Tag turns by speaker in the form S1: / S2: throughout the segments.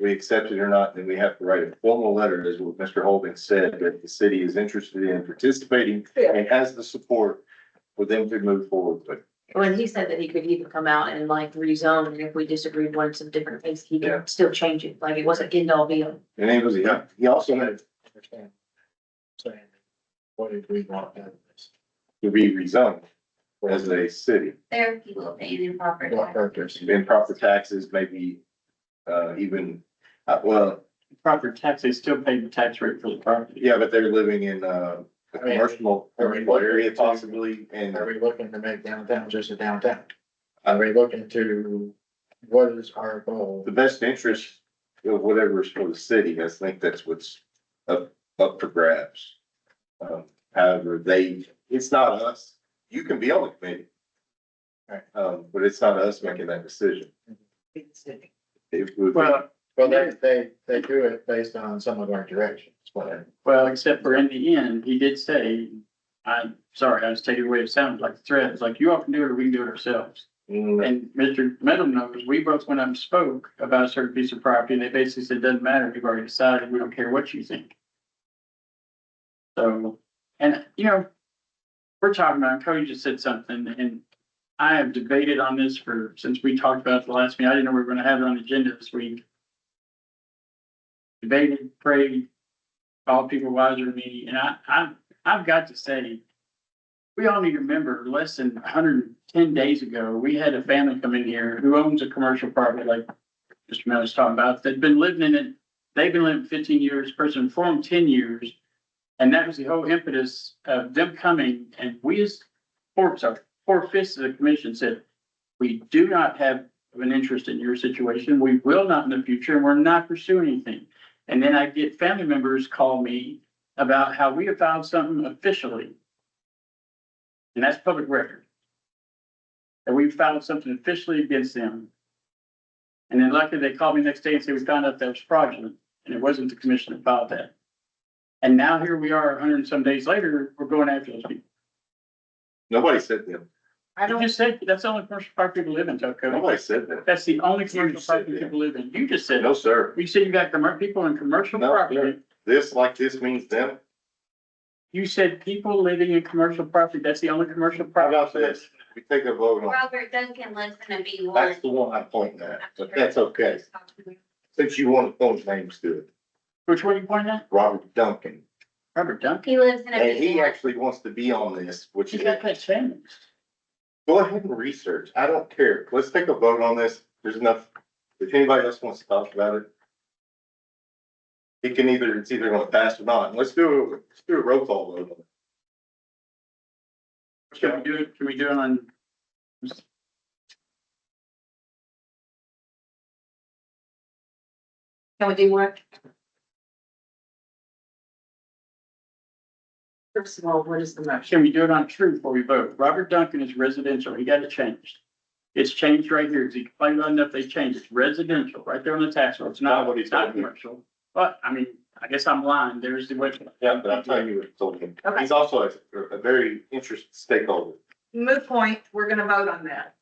S1: we accept it or not, then we have to write a formal letter, as what Mr. Holden said, that the city is interested in participating
S2: Yeah.
S1: and has the support for them to move forward, but
S3: When he said that he could even come out and like rezone, and if we disagreed on some different things, he
S1: Yeah.
S3: could still change it, like it wasn't end all be all.
S1: And he was, he, he also had
S4: Understand. Saying, what did we want out of this?
S1: to be rezoned as a city.
S5: There are people paying improper
S4: What
S5: tax.
S4: purpose?
S1: Improper taxes, maybe, uh, even, uh, well,
S6: Proper tax, they still pay the tax rate for the property.
S1: yeah, but they're living in, uh, a commercial commercial area possibly, and
S4: Are we looking to make downtown just a downtown? Are we looking to, what is our goal?
S1: the best interest of whatever is for the city, I think that's what's up, up for grabs. Um, however, they, it's not us, you can be on the committee.
S4: Right.
S1: Um, but it's not us making that decision. It would be-
S6: Well,
S4: Well, they, they, they do it based on some of our directions, but
S6: well, except for in the end, he did say, I'm sorry, I was taking away, it sounded like a threat. It's like, you all can do it, or we can do it ourselves.
S1: Mm,
S6: And Mr. Meadow knows, we both went up and spoke about a certain piece of property, and they basically said, doesn't matter, we've already decided, we don't care what you think. So, and, you know, we're talking about, Cody just said something, and I have debated on this for, since we talked about it the last meeting, I didn't know we were gonna have it on the agenda this week. Debated, prayed, all people wiser than me, and I, I, I've got to say, we all need to remember, less than hundred and ten days ago, we had a family come in here who owns a commercial property like Mr. Mel was talking about, that had been living in it, they've been living fifteen years, person for them ten years. And that was the whole impetus of them coming, and we as, four, sorry, four fifths of the commission said, we do not have an interest in your situation, we will not in the future, and we're not pursuing anything. And then I get family members call me about how we have filed something officially. And that's public record. And we filed something officially against them. And then luckily they called me next day and said, we found out that was fraudulent and it wasn't the commission that filed that. And now here we are, hundred and some days later, we're going after those people.
S1: Nobody said that,
S6: I don't just say, that's the only commercial property people live in, Tocco.
S1: nobody said that,
S6: That's the only
S1: You
S6: commercial
S1: said
S6: property
S1: that.
S6: people live in. You just said,
S1: no, sir,
S6: you said you got commer- people in commercial
S1: No,
S6: property.
S1: this like this means them,
S6: You said people living in commercial property, that's the only commercial
S1: how
S6: property.
S1: about this, we take a vote on,
S5: Robert Duncan lives in a B one.
S1: that's the one I'm pointing at, but that's okay, since you want to point names to it,
S6: Which one you pointing at?
S1: Robert Duncan.
S6: Robert Duncan.
S5: He lives in a
S1: And
S5: B
S1: he
S5: one.
S1: actually wants to be on this, which
S6: She
S1: is,
S6: got that changed.
S1: go ahead and research. I don't care. Let's take a vote on this. There's enough. If anybody else wants to talk about it. It can either, it's either gonna pass or not. Let's do, a- let's do a roll call vote. on it.
S6: Can we do it, can we do it on?
S3: Can we do what? First of all, what is the motion?
S6: Can we do it on true before we vote? Robert Duncan is residential, he got it changed. It's changed right here, he complained about enough, they changed, it's residential, right there on the tax roll, it's not,
S1: Not what he
S6: it's not
S1: told me.
S6: commercial. But, I mean, I guess I'm lying, there's the way.
S1: Yeah, but I'm telling you what I told him.
S2: Okay.
S1: He's also a, a very interested stakeholder.
S2: moot point, we're gonna vote on that.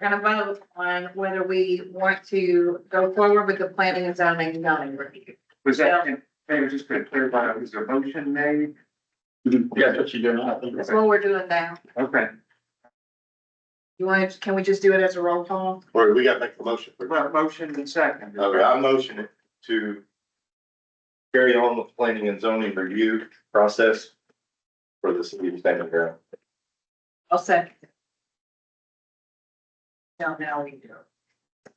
S2: We're gonna vote on whether we want to go forward with the planning and zoning and zoning review.
S7: Was that, hey, was just gonna clarify, was there a motion made?
S6: That's what you're doing, I think.
S2: That's what we're doing now.
S7: Okay,
S2: You want, can we just do it as a roll call?
S1: Or we gotta make the motion. first.
S7: well, motion and second.
S1: Okay, I motion it to carry on the planning and zoning review process for the city of Standing Ground.
S2: I'll second. it. Now, now we do. it.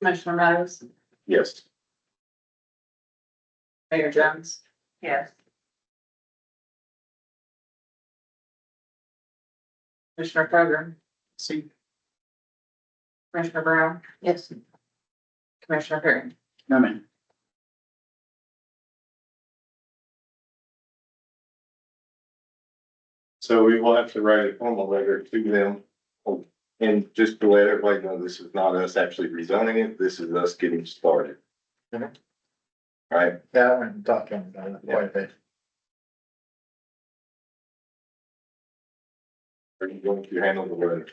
S2: Commissioner Meadows,
S1: Yes.
S2: Mayor Jones? Yes. Commissioner Program,
S6: See,
S2: Commissioner Brown,
S3: Yes,
S2: Commissioner Perry.
S6: no, man.
S1: So we will have to write a formal letter to them. And just to let everybody know, this is not us actually rezoning it, this is us getting started.
S4: Mhm.
S1: Right,
S4: that one, talking about it quite a bit.
S1: are you going to handle the letter?